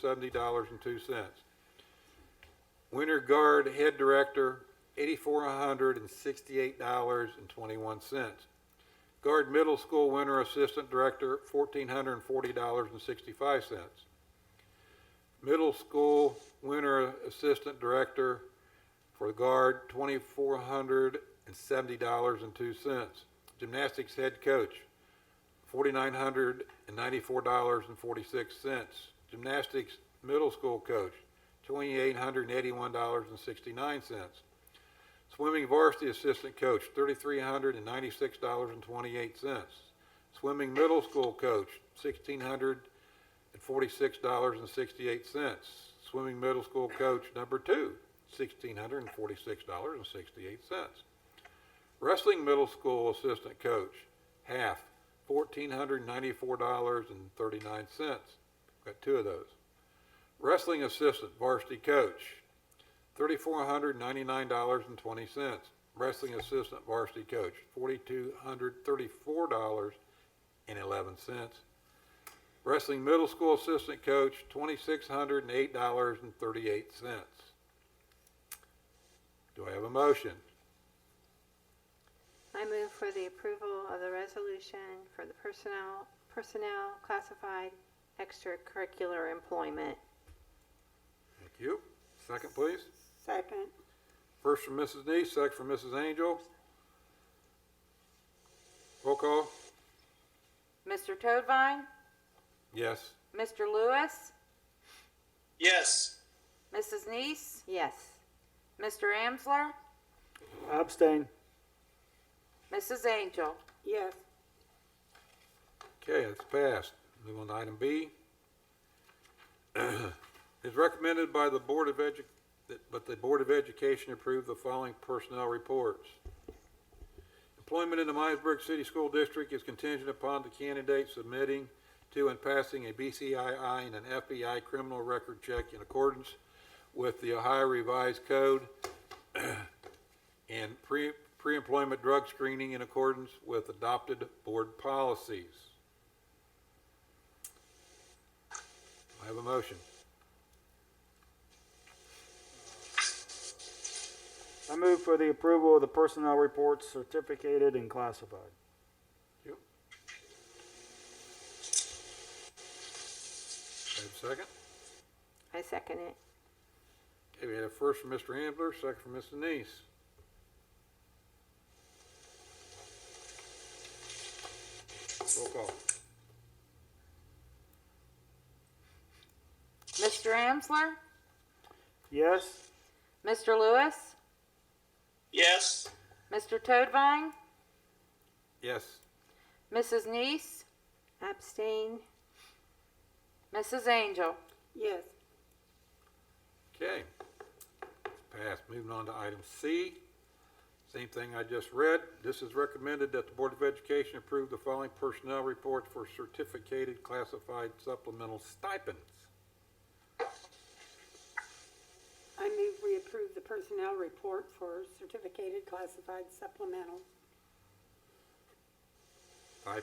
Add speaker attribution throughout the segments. Speaker 1: seventy dollars and two cents. Winter Guard Head Director, eighty-four hundred and sixty-eight dollars and twenty-one cents. Guard Middle School Winter Assistant Director, fourteen hundred and forty dollars and sixty-five cents. Middle School Winter Assistant Director for the Guard, twenty-four hundred and seventy dollars and two cents. Gymnastics Head Coach, forty-nine hundred and ninety-four dollars and forty-six cents. Gymnastics middle school coach, twenty-eight hundred and eighty-one dollars and sixty-nine cents. Swimming varsity assistant coach, thirty-three hundred and ninety-six dollars and twenty-eight cents. Swimming middle school coach, sixteen hundred and forty-six dollars and sixty-eight cents. Swimming middle school coach number two, sixteen hundred and forty-six dollars and sixty-eight cents. Wrestling middle school assistant coach, half, fourteen hundred ninety-four dollars and thirty-nine cents. Got two of those. Wrestling assistant varsity coach, thirty-four hundred ninety-nine dollars and twenty cents. Wrestling assistant varsity coach, forty-two hundred thirty-four dollars and eleven cents. Wrestling middle school assistant coach, twenty-six hundred and eight dollars and thirty-eight cents. Do I have a motion?
Speaker 2: I move for the approval of the resolution for the personnel, personnel classified extracurricular employment.
Speaker 1: Thank you. Second, please.
Speaker 3: Second.
Speaker 1: First from Mrs. Neese, second from Mrs. Angel. Roll call?
Speaker 4: Mr. Toadvine,
Speaker 1: Yes.
Speaker 4: Mr. Lewis,
Speaker 5: yes,
Speaker 4: Mrs. Neese,
Speaker 2: Yes.
Speaker 4: Mr. Amsler,
Speaker 6: Abstain.
Speaker 4: Mrs. Angel.
Speaker 3: Yes.
Speaker 1: Okay, it's passed. Move on to item B. It's recommended by the Board of Edu, that- but the Board of Education approved the following personnel reports. Employment in the Myers-Briggs City School District is contingent upon the candidate submitting to and passing a BCII and an FBI criminal record check in accordance with the Ohio Revised Code and pre, pre-employment drug screening in accordance with adopted board policies. I have a motion.
Speaker 6: I move for the approval of the personnel reports certificated and classified.
Speaker 1: I have a second.
Speaker 2: I second it.
Speaker 1: Okay, we had a first from Mr. Ambler, second from Mr. Neese. Roll call.
Speaker 4: Mr. Amsler,
Speaker 6: Yes?
Speaker 4: Mr. Lewis,
Speaker 5: yes,
Speaker 4: Mr. Toadvine,
Speaker 1: Yes.
Speaker 4: Mrs. Neese,
Speaker 2: Abstain.
Speaker 4: Mrs. Angel.
Speaker 3: Yes.
Speaker 1: Okay. Passed. Moving on to item C. Same thing I just read. This is recommended that the Board of Education approve the following personnel reports for certificated classified supplemental stipends.
Speaker 3: I move we approve the personnel report for certificated classified supplemental
Speaker 1: Stipend.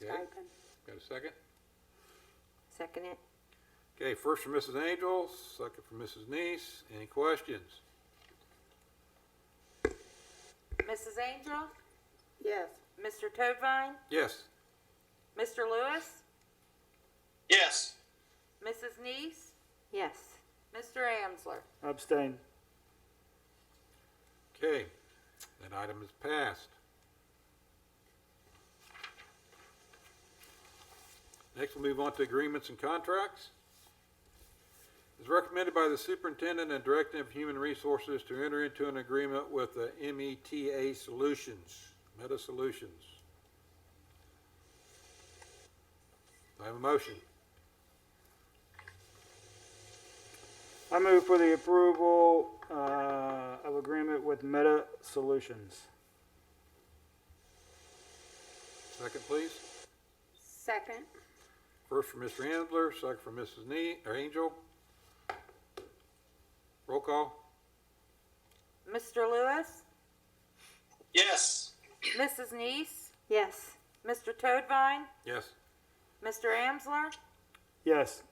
Speaker 1: Okay,
Speaker 3: stipend.
Speaker 1: got a second?
Speaker 2: Second it.
Speaker 1: Okay, first from Mrs. Angel, second from Mrs. Neese. Any questions?
Speaker 4: Mrs. Angel,
Speaker 3: Yes.
Speaker 4: Mr. Toadvine,
Speaker 1: Yes.
Speaker 4: Mr. Lewis,
Speaker 5: yes,
Speaker 4: Mrs. Neese,
Speaker 2: Yes.
Speaker 4: Mr. Amsler.
Speaker 6: Abstain.
Speaker 1: Okay, that item is passed. Next, we'll move on to agreements and contracts. It's recommended by the superintendent and director of human resources to enter into an agreement with the META Solutions, Meta Solutions. Do I have a motion?
Speaker 6: I move for the approval uh, of agreement with Meta Solutions.
Speaker 1: Second, please.
Speaker 3: Second.
Speaker 1: First from Mr. Ambler, second from Mrs. Nee, or Angel. Roll call.
Speaker 4: Mr. Lewis,
Speaker 5: yes,
Speaker 4: Mrs. Neese,
Speaker 2: Yes.
Speaker 4: Mr. Toadvine,
Speaker 1: Yes.
Speaker 4: Mr. Amsler,
Speaker 6: Yes.